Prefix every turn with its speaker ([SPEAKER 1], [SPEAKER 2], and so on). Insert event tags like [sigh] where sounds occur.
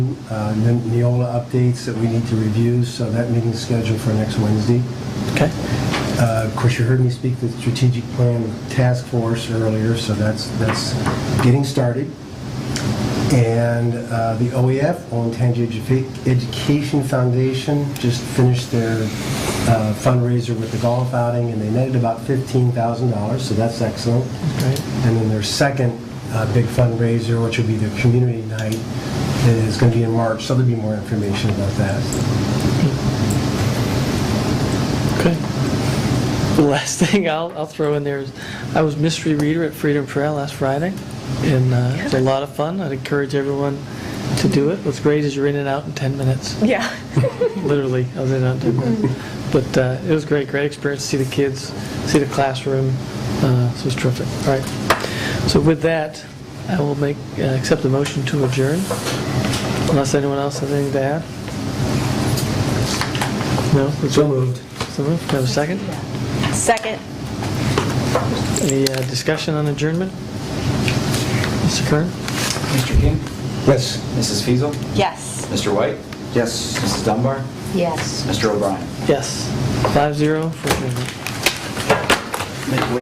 [SPEAKER 1] uh, Ne- Neola updates that we need to review, so that meeting's scheduled for next Wednesday.
[SPEAKER 2] Okay.
[SPEAKER 1] Uh, Of course, you heard me speak to the strategic plan task force earlier, so that's, that's getting started. And uh, the OEF, Owen Tangi Edu- Education Foundation, just finished their uh, fundraiser with the golf outing, and they netted about $15,000, so that's excellent. And then their second uh, big fundraiser, which will be their community night, is going to be in March, so there'll be more information about that.
[SPEAKER 2] Okay. The last [laughs] thing I'll, I'll throw in there is, I was mystery reader at Freedom Trail last Friday, and uh, it was a lot of fun. I'd encourage everyone to do it. What's great is you're in and out in 10 minutes,
[SPEAKER 3] Yeah. [laughs]
[SPEAKER 2] literally, I was in and out in 10 minutes. But uh, it was great, great experience, to see the kids, see the classroom, Uh, so it was terrific. All right. So with that, I will make, uh, accept the motion to adjourn, unless anyone else has anything to add? No?
[SPEAKER 1] So moved.
[SPEAKER 2] So moved. Have a second?
[SPEAKER 3] Second.
[SPEAKER 2] Any uh, discussion on adjournment? Mr. Kern?
[SPEAKER 4] Mr. King?
[SPEAKER 1] Yes.
[SPEAKER 4] Mrs. Fiesel,
[SPEAKER 3] Yes.
[SPEAKER 4] Mr. White? Yes. Mrs. Dunbar?
[SPEAKER 3] Yes.
[SPEAKER 4] Mr. O'Brien?
[SPEAKER 2] Yes. Five zero for adjournment.